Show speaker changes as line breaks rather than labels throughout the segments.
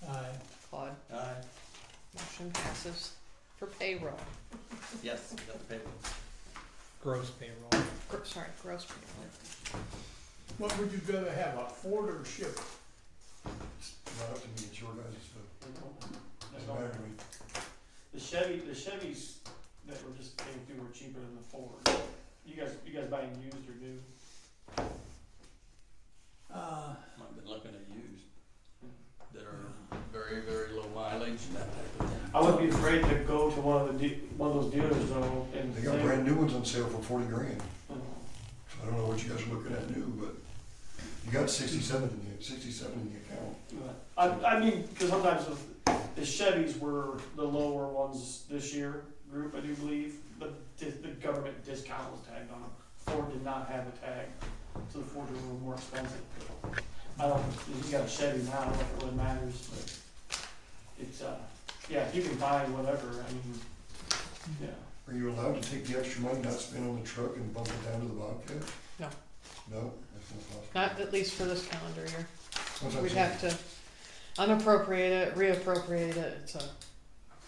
Uh,
motion passes for payroll,
Yes, we got the paper.
gross payroll.
Gr- sorry, gross payroll.
What would you rather have, a Ford or a Chevy?
Not up to me, it's your guys' stuff.
That's
Doesn't
all.
matter to me.
The Chevy, the Chevys that were just came through were cheaper than the Ford. You guys, you guys buying used or new?
Uh,
I've been looking at used that are very, very low mileage and that type of thing.
Oh.
I wouldn't be afraid to go to one of the, de- one of those dealers though and.
They got
say-
brand new ones on sale for forty grand.
Oh,
So I don't know what you guys are looking at new, but you got sixty-seven in the, sixty-seven in the account.
but- I, I mean, cause sometimes with, the Chevys were the lower ones this year group, I do believe, but the, the government discount was tagged on them. Ford did not have a tag, so the Ford was a little more expensive. I don't, if you got a Chevy now, I don't know if it really matters, but it's, uh, yeah, if you can buy whatever, I mean, yeah.
Are you allowed to take the extra money not spent on the truck and bump it down to the Bobcat?
No.
No, that's not possible.
Not at least for this calendar year.
That's what
We'd
I'm
have
saying.
to unappropriate it, reappropriate it, it's a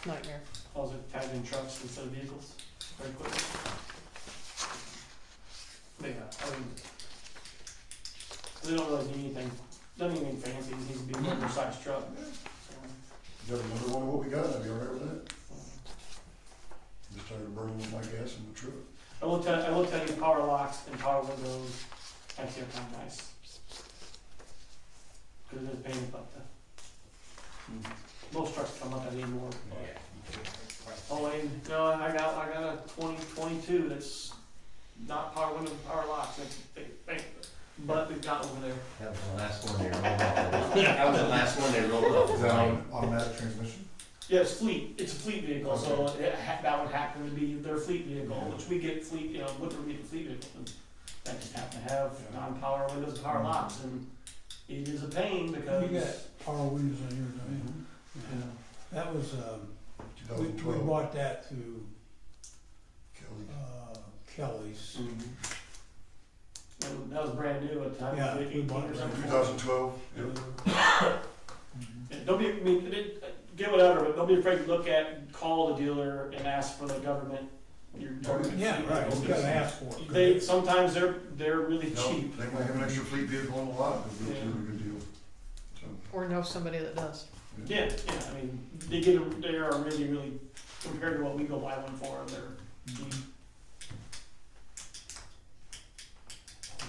nightmare.
Also tagged in trucks instead of vehicles, very quick. But yeah, I mean, they don't really need anything, doesn't need anything fancy, it just needs to be a regular sized truck, so.
You got another one of what we got, I'd be all right with that. Just tired of burning my gas in the truck.
I will tell, I will tell you, power locks and power windows actually are kind of nice. Cause there's pain about that, most trucks come up at anymore, but. Oh, and, no, I got, I got a twenty twenty-two that's not power windows, and power locks, that's a big thing, but we've got over there.
That was the last one they rolled off. That was the last one they rolled off.
Is that on automatic transmission?
Yeah, it's fleet, it's a fleet vehicle, so it ha- that would happen to be their fleet vehicle, which we get fleet, you know, what do we get the fleet vehicle? And That just happen to have non-power windows, and power locks, and it is a pain because,
Mm-hmm.
Mm-hmm.
You
you
got Carl Williams on here, don't you?
know,
That was, um, we,
Two thousand
we
twelve,
bought that through,
Kelly.
uh, Kelly's.
Mm-hmm. That- that was brand new at the time,
Yeah,
like
we
eighteen
bought
or
it.
something.
Two thousand twelve, yep.
Yeah, Don't be, I mean, it- it- get whatever, but don't be afraid to look at, call the dealer and ask for the government, your government.
Yeah, right, we gotta ask for it.
They, sometimes they're, they're really
No,
cheap.
They might have an extra fleet vehicle on the lot, it'd be a really good deal. So,
Or know somebody that does.
Yeah, yeah, I mean, they get, they are really, really, compared to what we go buy one for, they're cheap.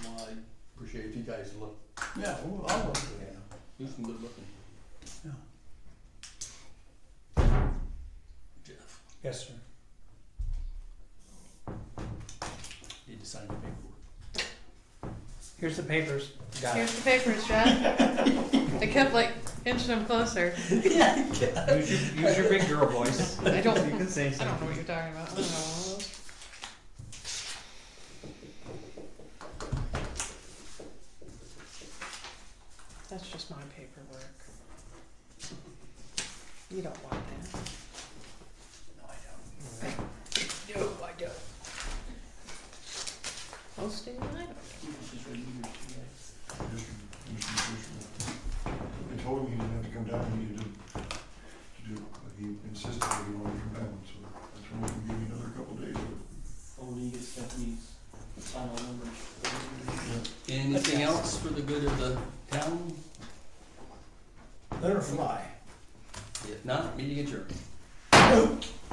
Well, I appreciate if you guys look,
Yeah, well, I'll look at it.
do some good looking.
Yeah.
Jeff,
Yes, sir.
need to sign the paperwork.
Here's the papers. Got
Here's the papers, Jeff. I kept like inching them closer.
it. Use your, use your big girl voice.
I don't-
You can say
I don't know
something.
what you're talking about. I don't know. That's just my paperwork. You don't want that. No, I don't. No, I don't. Most of you, I don't.
She's ready to use it today.
just- just- just- They told him he didn't have to come down, he needed to, to do, it, but he insisted that he wanted to come down, so that's when we give me another couple of days.
Oh, when you get Stephanie's final numbers.
Anything else for the good of the town?
Let her fly.
If not, meeting adjourned.